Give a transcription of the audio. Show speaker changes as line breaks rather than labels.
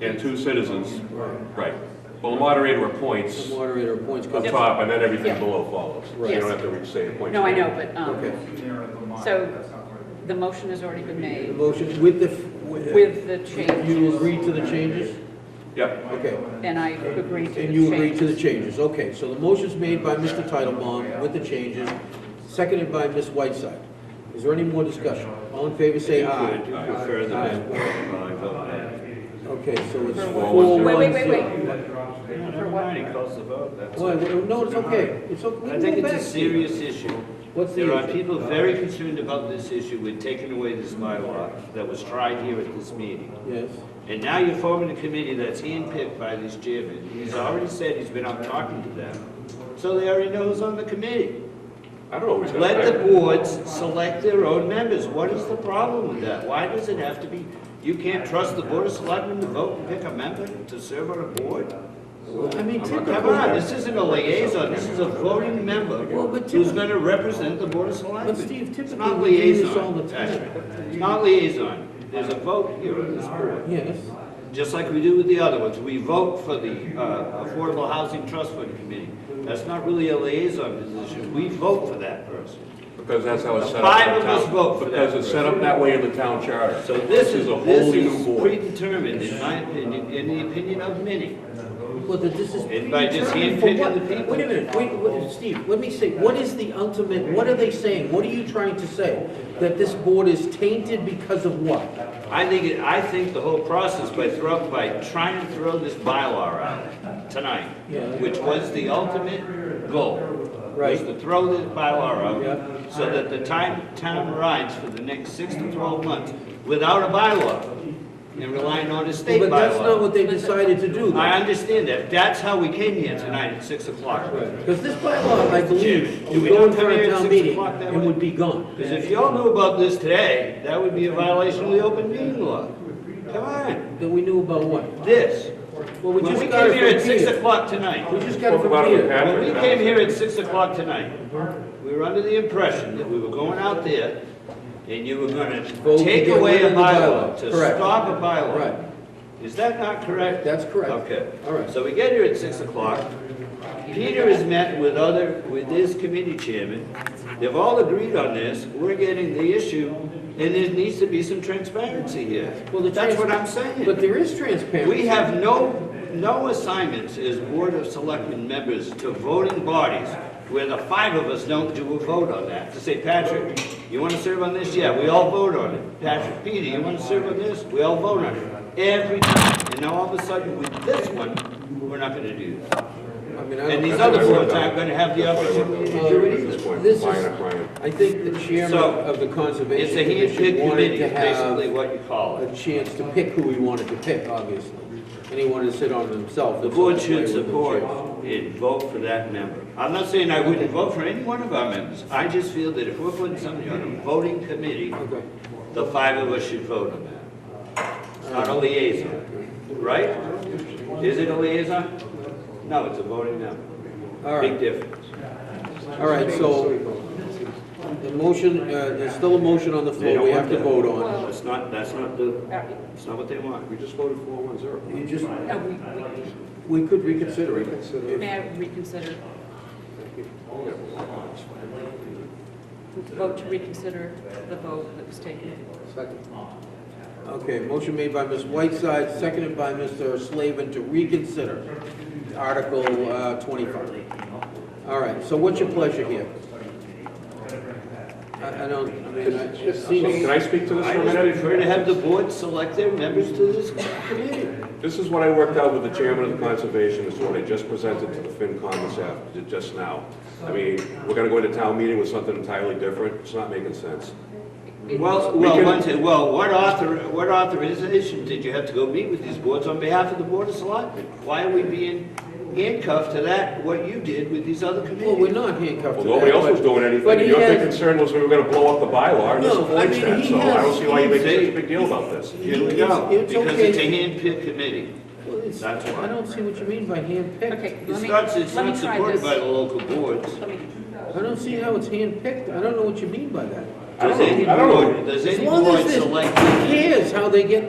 and two citizens, right. Well, the moderator appoints up
Moderator appoints, because
top, and then everything
Yep.
below follows. You
Yes.
don't have to re- say appoints.
No, I know, but,
Okay.
um, so the motion has already been
the
made
motion with the...
with the changes.
You agree to the changes?
Yep,
Okay.
And I agree to the changes.
And you agree to the changes, okay. So the motion's made by Mr. Titlebaum with the changes, seconded by Ms. Whiteside. Is there any more discussion? All in favor, say aye.
Included, aye. Further
Aye.
I vote aye.
Okay, so it's
For what?
four, one, zero.
Wait, wait, wait, wait. For what?
Calls the vote, that's
Well, well, no, it's okay, it's okay.
I think it's a serious issue.
What's the
There are
issue? Uh,
people very concerned about this issue. We're taking away this bylaw that was tried here at this meeting.
Yes,
And now you're forming a committee that's handpicked by this chairman. He's already said he's been out talking to them. So they already know who's on the committee.
I don't always.
Let the boards select their own members. What is the problem with that? Why does it have to be, you can't trust the board of selectmen to vote and pick a member to serve on a board? I mean, Tim, come on, this isn't a liaison, this is a voting member
Well, but
who's
Tim-
gonna represent the board of selectmen.
But Steve,
It's
typically
not
we do this
liaison,
all the time.
Patrick. It's not liaison. There's a vote here on this board.
yes.
Just like we do with the other ones, we vote for the uh, Affordable Housing Trust Fund Committee. That's not really a liaison position, we vote for that person.
Because that's how it's
The
set up. in
five of
town-
us vote for that
Because it's set up that way in the town charter.
So this is,
a
this
wholly new
is
board.
predetermined, in my opinion, in the opinion of many.
Well, that this is
And by just
predetermined for
handpicking
what?
the people?
Wait a minute, wait, wait, Steve, let me say, what is the ultimate, what are they saying? What are you trying to say? That this board is tainted because of what?
I think, it- I think the whole process by throw, by trying to throw this bylaw out tonight,
Yeah.
which was the ultimate goal, was
Right.
to throw this bylaw
Yeah.
out so that the time, town rides for the next six to twelve months without a bylaw and relying on a state bylaw.
But that's not what they decided to do,
I
though.
understand that. That's how we came here tonight at six o'clock.
Because this bylaw, I believe,
Jim, do
would
we
go in
not
front
come
of
here at
town
six
meeting
o'clock that
and
way?
would be gone.
Because if y'all knew about this today, that would be a violation of the open meeting law. Come on,
That we knew about what?
this.
Well, we
When
just
we
got
came here
it
at
from
six
Peter.
o'clock tonight,
We just got it
Spoke about
from
it with
Peter.
Pat.
when we came here at six o'clock tonight, we were under the impression that we were going out there and you were gonna
Vote to
take
get
away
rid
a
of the bylaw.
bylaw, to
Correct.
stop a
Right.
bylaw. Is that not correct?
That's correct.
Okay.
All right.
So we get here at six o'clock. Peter has met with other, with his committee chairman. They've all agreed on this. We're getting the issue, and there needs to be some transparency here.
Well, the
That's
trans-
what I'm saying.
But there is transparency.
We have no, no assignments as Board of Selectmen members to voting bodies where the five of us don't do a vote on that, to say, Patrick, you want to serve on this? Yeah, we all vote on it. Patrick, Peter, you want to serve on this? We all vote on it. Every time. And now all of a sudden, with this one, we're not going to do that.
I mean, I
And
don't-
these other boards aren't going to have the opportunity to
At
do it
Uh, this
either.
point,
This is-
minor, minor.
I think the chairman
So,
of the
It's
Conservation
a
Commission
handpicked
wanted
committee,
to
is basically
have
what you call it.
a chance to pick who he wanted to pick, obviously. And he wanted to sit on it himself.
The
so
board
that's why he
should
was the
support
chair.
and vote for that member. I'm not saying I wouldn't vote for any one of our members. I just feel that if we're putting somebody on a voting committee,
Okay.
the five of us should vote on that. It's not a liaison, right? Is it a liaison? No, it's a voting
All
member.
right.
Big difference.
All right, so the motion, uh, there's still a motion on the
They
floor
don't
we
want
have to
that.
vote on.
That's not, that's not the,
Uh,
that's not what they want.
We just voted four one zero.
You just,
No, we, we,
we could reconsider it.
may I reconsider? Vote to reconsider the vote that was taken.
Okay, motion made by Ms. Whiteside, seconded by Mr. Slavin to reconsider Article uh, 25. All right, so what's your pleasure here? I I don't, I mean, I- it
Can
seems,
I speak to this
I
for a
just
minute?
prefer to have the board select their members to this committee.
This is what I worked out with the chairman of the conservation, this is what I just presented to the FinCon this after, just now. I mean, we're gonna go into town meeting with something entirely different, it's not making sense.
Well,
We
well,
can-
one thing, well, what author, what authorization did you have to go meet with these boards on behalf of the Board of Selectmen? Why are we being handcuffed to that, what you did with these other
well, we're
committees?
not handcuffed to
Well,
that.
nobody else
but-
was doing
but
anything,
he
your big
has-
concern was we were gonna blow up the bylaw and
No, I
disappoint
mean,
that,
he
so I don't
has-
see why you make such
he-
a big deal about this.
Here we
It's-
go,
it's
because it's a
okay.
handpicked committee.
Well, it's-
That's why.
I don't see what you mean by
Okay.
handpicked.
It's
Let me-
not, it's
let me
not
try
supported
this.
by the local boards.
Let me,
I don't see how it's handpicked. I don't know what you mean by that.
I don't
Does
know-
any
I don't know.
board, does
As
any
long
board
as this, who
select?
cares how they get